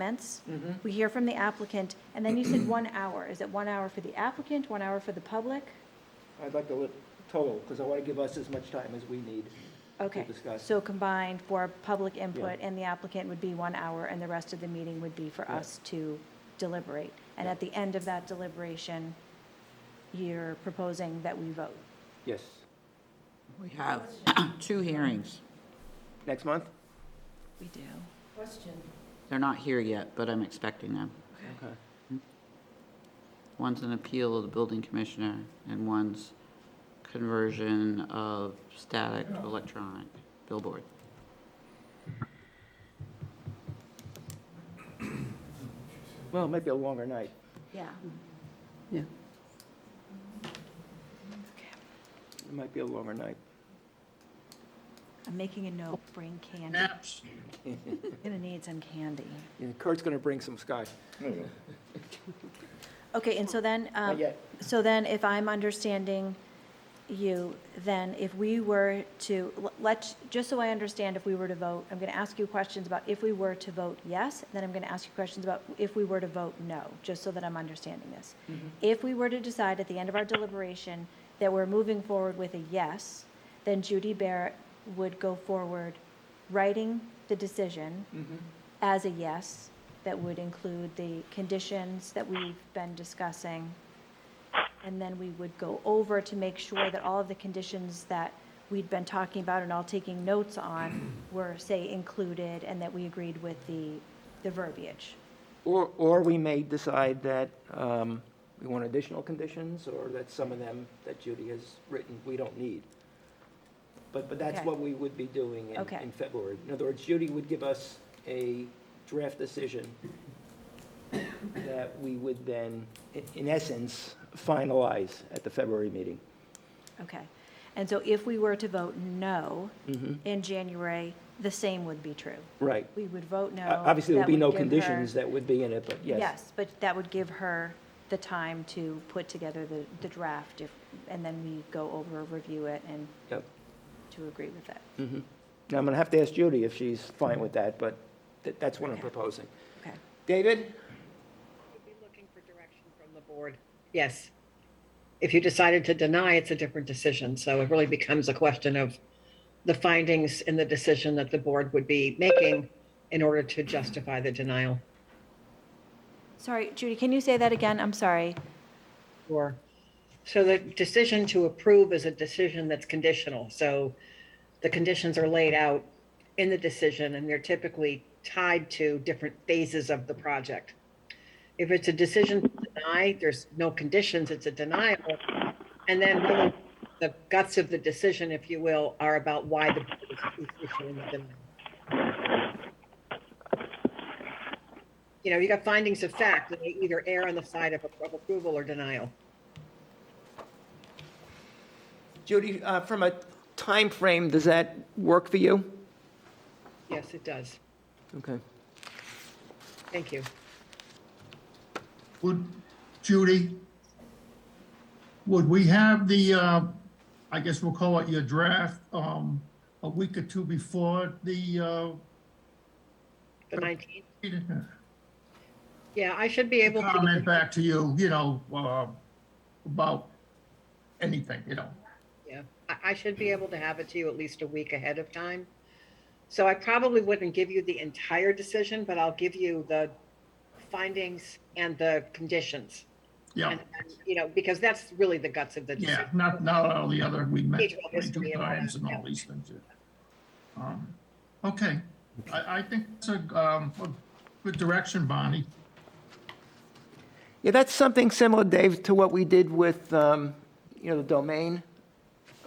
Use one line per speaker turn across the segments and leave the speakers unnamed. comments, we hear from the applicant, and then you said one hour. Is it one hour for the applicant, one hour for the public?
I'd like to look total, because I want to give us as much time as we need.
Okay,
discuss.
so combined for public input and the applicant would be one hour, and the rest of the meeting would be for
Yeah.
us to deliberate. And
Yeah.
at the end of that deliberation, you're proposing that we vote.
Yes.
We have two hearings.
Next month?
We do.
Question,
They're not here yet, but I'm expecting them.
Okay.
One's an appeal of the building commissioner, and one's conversion of static to electronic billboard.
Well, it might be a longer night.
Yeah.
Yeah.
It might be a longer night.
I'm making a note, bring candy. Gonna need some candy.
Yeah, Kurt's going to bring some scotch.
Okay, and so then, um,
Not yet.
so then if I'm understanding you, then if we were to, l- let's, just so I understand, if we were to vote, I'm going to ask you questions about if we were to vote yes, then I'm going to ask you questions about if we were to vote no, just so that I'm understanding this. If we were to decide at the end of our deliberation that we're moving forward with a yes, then Judy Barrett would go forward writing the decision as a yes, that would include the conditions that we've been discussing. And then we would go over to make sure that all of the conditions that we'd been talking about and all taking notes on were, say, included and that we agreed with the, the verbiage.
Or, or we may decide that um, we want additional conditions, or that some of them that Judy has written, we don't need. But, but that's
Okay.
what we would be doing in,
Okay.
in February. In other words, Judy would give us a draft decision that we would then, i- in essence, finalize at the February meeting.
Okay. And so if we were to vote no in January, the same would be true.
Right.
We would vote no.
O- Obviously, there'll
That
be
would
no
give her-
conditions that would be in it, but yes.
Yes, but that would give her the time to put together the, the draft if, and then we go over, review it and
Yep.
to agree with it.
Now, I'm going to have to ask Judy if she's fine with that, but th- that's what I'm proposing.
Okay.
David?
Be looking for direction from the board. Yes. If you decided to deny, it's a different decision. So it really becomes a question of the findings in the decision that the board would be making in order to justify the denial.
Sorry, Judy, can you say that again? I'm sorry.
Or, so the decision to approve is a decision that's conditional. So the conditions are laid out in the decision and they're typically tied to different phases of the project. If it's a decision to deny, there's no conditions, it's a denial. And then really the guts of the decision, if you will, are about why the board is- is issuing the denial. You know, you got findings of fact, and they either err on the side of of approval or denial.
Judy, uh, from a time frame, does that work for you?
Yes, it does.
Okay.
Thank you.
Would, Judy, would we have the, uh, I guess we'll call it your draft, um, a week or two before the, uh,
The 19th.
meeting?
Yeah, I should be able
comment
to.
back to you, you know, uh, about anything, you know?
Yeah, I, I should be able to have it to you at least a week ahead of time. So I probably wouldn't give you the entire decision, but I'll give you the findings and the conditions.
Yeah,
And, and, you know, because that's really the guts of the
Oh. yeah,
decision.
not, not all the other, we met
Digital history
twenty-two
and all
times
that,
and all
yeah.
these things. yeah. Um, Okay, I, I think it's a, um, a good direction, Bonnie.
Yeah, that's something similar, Dave, to what we did with, um, you know, the domain.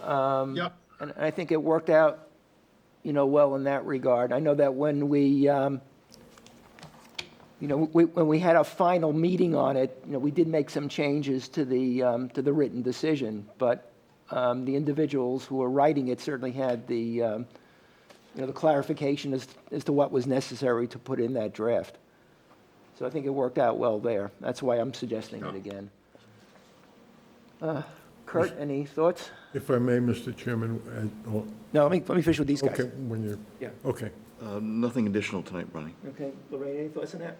Um,
Yep.
And I think it worked out, you know, well in that regard. I know that when we, um, you know, we- when we had our final meeting on it, you know, we did make some changes to the, um, to the written decision, but um, the individuals who were writing it certainly had the, um, you know, the clarification as, as to what was necessary to put in that draft. So I think it worked out well there. That's why I'm suggesting it again. Uh, Kurt, any thoughts?
If I may, Mr. Chairman, I- oh,
No, let me, let me finish with these guys.
okay, when you,
Yeah.
okay.
Uh, Nothing additional tonight, Ronnie.
Okay, Lorraine, any thoughts on that?